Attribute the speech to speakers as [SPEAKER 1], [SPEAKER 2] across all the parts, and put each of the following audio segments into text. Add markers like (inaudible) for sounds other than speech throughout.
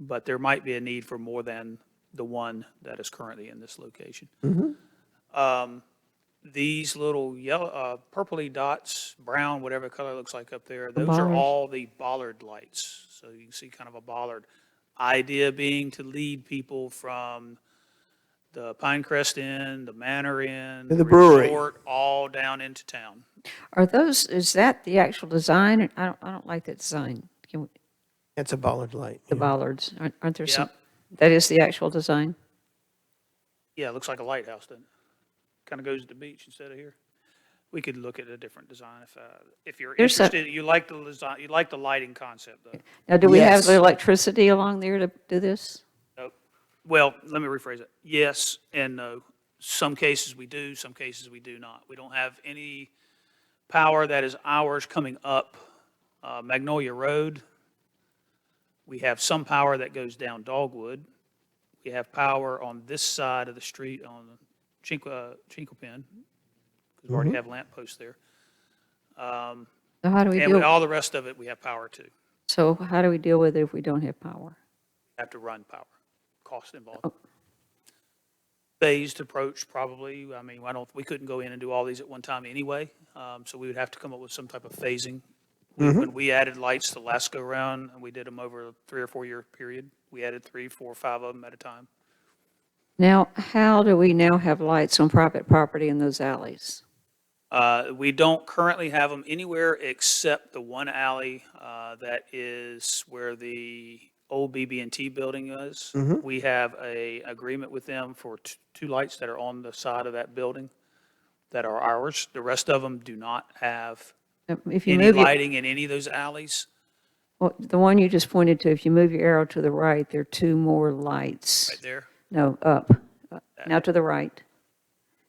[SPEAKER 1] but there might be a need for more than the one that is currently in this location.
[SPEAKER 2] Mm-hmm.
[SPEAKER 1] Um, These little yellow, uh, purpley dots, brown, whatever color it looks like up there, those are
[SPEAKER 3] bollards.
[SPEAKER 1] all the bollard lights. So you can see kind of a bollard. Idea being to lead people from the Pinecrest Inn, the Manor Inn.
[SPEAKER 2] the brewery.
[SPEAKER 1] resort, All down into town.
[SPEAKER 3] Are those, is that the actual design? I don't, I don't like that design. Can we-
[SPEAKER 2] It's a bollard light.
[SPEAKER 3] The
[SPEAKER 2] yeah.
[SPEAKER 3] bollards, aren't aren't there some?
[SPEAKER 1] Yep.
[SPEAKER 3] That is the actual design?
[SPEAKER 1] Yeah, it looks like a lighthouse, doesn't it? Kind of goes to the beach instead of here. We could look at a different design if, uh, if you're
[SPEAKER 3] There's a-
[SPEAKER 1] interested. You like the design, you like the lighting concept, though.
[SPEAKER 3] Now, do we have the
[SPEAKER 2] Yes.
[SPEAKER 3] electricity along there to do this?
[SPEAKER 1] Nope. Well, let me rephrase it. Yes and no. Some cases we do, some cases we do not. We don't have any power that is ours coming up uh, Magnolia Road. We have some power that goes down Dogwood. We have power on this side of the street on uh, Chinquapin, because we already have lamp posts there. Um,
[SPEAKER 3] So how do we
[SPEAKER 1] And with
[SPEAKER 3] deal,
[SPEAKER 1] all the rest of it, we have power too.
[SPEAKER 3] so how do we deal with it if we don't have power?
[SPEAKER 1] have to run power, cost involved. Phased approach probably, I mean, I don't, we couldn't go in and do all these at one time anyway, um, so we would have to come up with some type of phasing. We- When we added lights the last go round, and we did them over a three or four-year period, we added three, four, five of them at a time.
[SPEAKER 3] Now, how do we now have lights on private property in those alleys?
[SPEAKER 1] Uh, We don't currently have them anywhere except the one alley uh, that is where the old BB&T building is.
[SPEAKER 3] Mm-hmm.
[SPEAKER 1] We have a agreement with them for t- two lights that are on the side of that building that are ours. The rest of them do not have
[SPEAKER 3] Um, If you
[SPEAKER 1] any
[SPEAKER 3] move, your-
[SPEAKER 1] lighting in any of those alleys.
[SPEAKER 3] well, the one you just pointed to, if you move your arrow to the right, there are two more lights.
[SPEAKER 1] Right there,
[SPEAKER 3] No, up. Uh, Now to the right.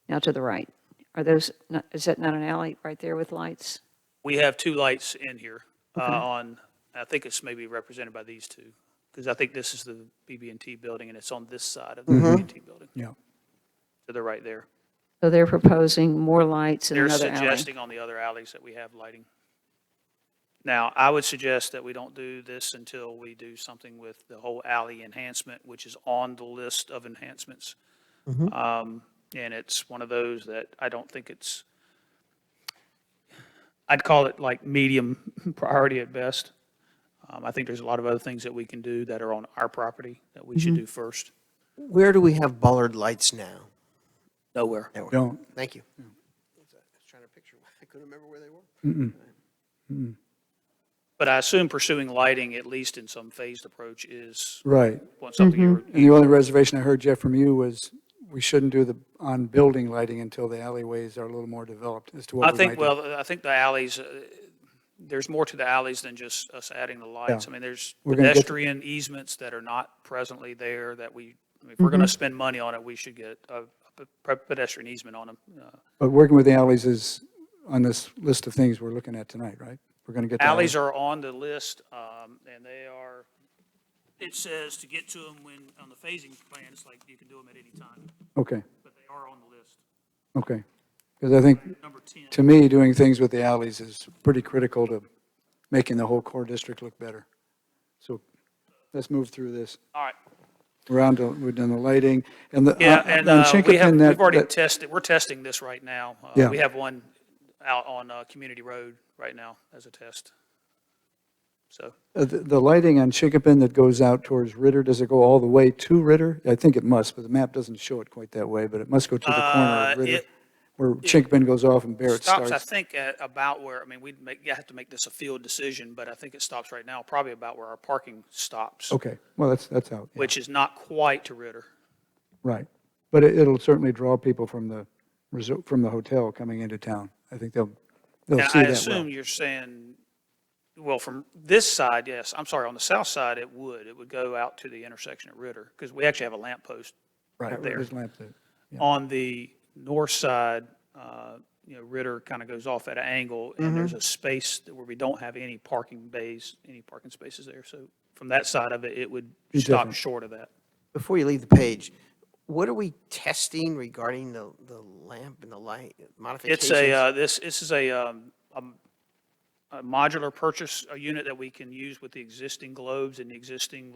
[SPEAKER 3] Now to the right. Are those, not- is that not an alley right there with lights?
[SPEAKER 1] we have two lights in here uh, on, I think it's maybe represented by these two, because I think this is the BB&T building, and it's on this side of the BB&T building.
[SPEAKER 4] Yeah.
[SPEAKER 1] So they're right there.
[SPEAKER 3] So they're proposing more lights in
[SPEAKER 1] They're
[SPEAKER 3] another alley.
[SPEAKER 1] suggesting on the other alleys that we have lighting. Now, I would suggest that we don't do this until we do something with the whole alley enhancement, which is on the list of enhancements.
[SPEAKER 3] Mm-hmm.
[SPEAKER 1] Um, And it's one of those that I don't think it's, I'd call it like medium (laughs) priority at best. Um, I think there's a lot of other things that we can do that are on our property that we
[SPEAKER 3] Mm-hmm.
[SPEAKER 1] should do first.
[SPEAKER 2] Where do we have bollard lights now?
[SPEAKER 1] Nowhere.
[SPEAKER 2] There we go.
[SPEAKER 4] Don't.
[SPEAKER 2] Thank you. Hmm. I was trying to picture, I couldn't remember where they were.
[SPEAKER 1] But I assume pursuing lighting, at least in some phased approach, is
[SPEAKER 4] Right.
[SPEAKER 1] something you
[SPEAKER 3] mm-hmm.
[SPEAKER 4] And the only reservation I heard, Jeff, from you was we shouldn't do the on-building lighting until the alleyways are a little more developed as
[SPEAKER 1] I
[SPEAKER 4] to what we might
[SPEAKER 1] think,
[SPEAKER 4] do.
[SPEAKER 1] well, I think the alleys, uh, there's more to the alleys than just us adding the lights. I mean, there's
[SPEAKER 4] We're gonna get-
[SPEAKER 1] pedestrian easements that are not presently there that we, I mean, if we're
[SPEAKER 4] Mm-hmm.
[SPEAKER 1] going to spend money on it, we should get a a pe- pedestrian easement on Uh, them.
[SPEAKER 4] But working with the alleys is on this list of things we're looking at tonight, right? We're going to get. the
[SPEAKER 1] Alleys are on the list, um, and they are, it says to get to them when, on the phasing plan, it's like you can do them at any time,
[SPEAKER 4] Okay,
[SPEAKER 1] but they are on the list.
[SPEAKER 4] okay. Because I think,
[SPEAKER 1] Number 10.
[SPEAKER 4] to me, doing things with the alleys is pretty critical to making the whole core district look better. So let's move through this.
[SPEAKER 1] All right.
[SPEAKER 4] We're on to, we've done the lighting and the.
[SPEAKER 1] Yeah,
[SPEAKER 4] on-
[SPEAKER 1] and
[SPEAKER 4] on
[SPEAKER 1] uh, we have,
[SPEAKER 4] Chinkopin, that-
[SPEAKER 1] we've already
[SPEAKER 4] that-
[SPEAKER 1] tested, we're testing this right now. Uh,
[SPEAKER 4] Yeah.
[SPEAKER 1] We have one out on uh, Community Road right now as a test. So,
[SPEAKER 4] Uh, The the lighting on Chickapin that goes out towards Ritter, does it go all the way to Ritter? I think it must, but the map doesn't show it quite that way, but it must go to the corner
[SPEAKER 1] Uh,
[SPEAKER 4] of Ritter,
[SPEAKER 1] it-
[SPEAKER 4] where Chickapin goes off and Barrett
[SPEAKER 1] stops, I
[SPEAKER 4] starts.
[SPEAKER 1] think, at about where, I mean, we'd make, you have to make this a field decision, but I think it stops right now, probably about where our parking stops,
[SPEAKER 4] Okay, well, that's, that's out, yeah,
[SPEAKER 1] which is not quite to Ritter.
[SPEAKER 4] right. But it- it'll certainly draw people from the, resort- from the hotel coming into town. I think they'll, they'll
[SPEAKER 1] Now,
[SPEAKER 4] see
[SPEAKER 1] I
[SPEAKER 4] that well.
[SPEAKER 1] assume you're saying, well, from this side, yes, I'm sorry, on the south side, it would. It would go out to the intersection at Ritter, because we actually have a lamp post
[SPEAKER 4] Right,
[SPEAKER 1] there.
[SPEAKER 4] there's lamp there.
[SPEAKER 1] on the north side, uh, you know, Ritter kind of goes off at an angle, and there's a space that- where we don't have any parking bays, any parking spaces there. So from that side of it, it would stop short of that.
[SPEAKER 2] Before you leave the page, what are we testing regarding the, the lamp and the light modifications?
[SPEAKER 1] It's a, uh, this, this is a, um, um, a modular purchase, a unit that we can use with the existing globes and the existing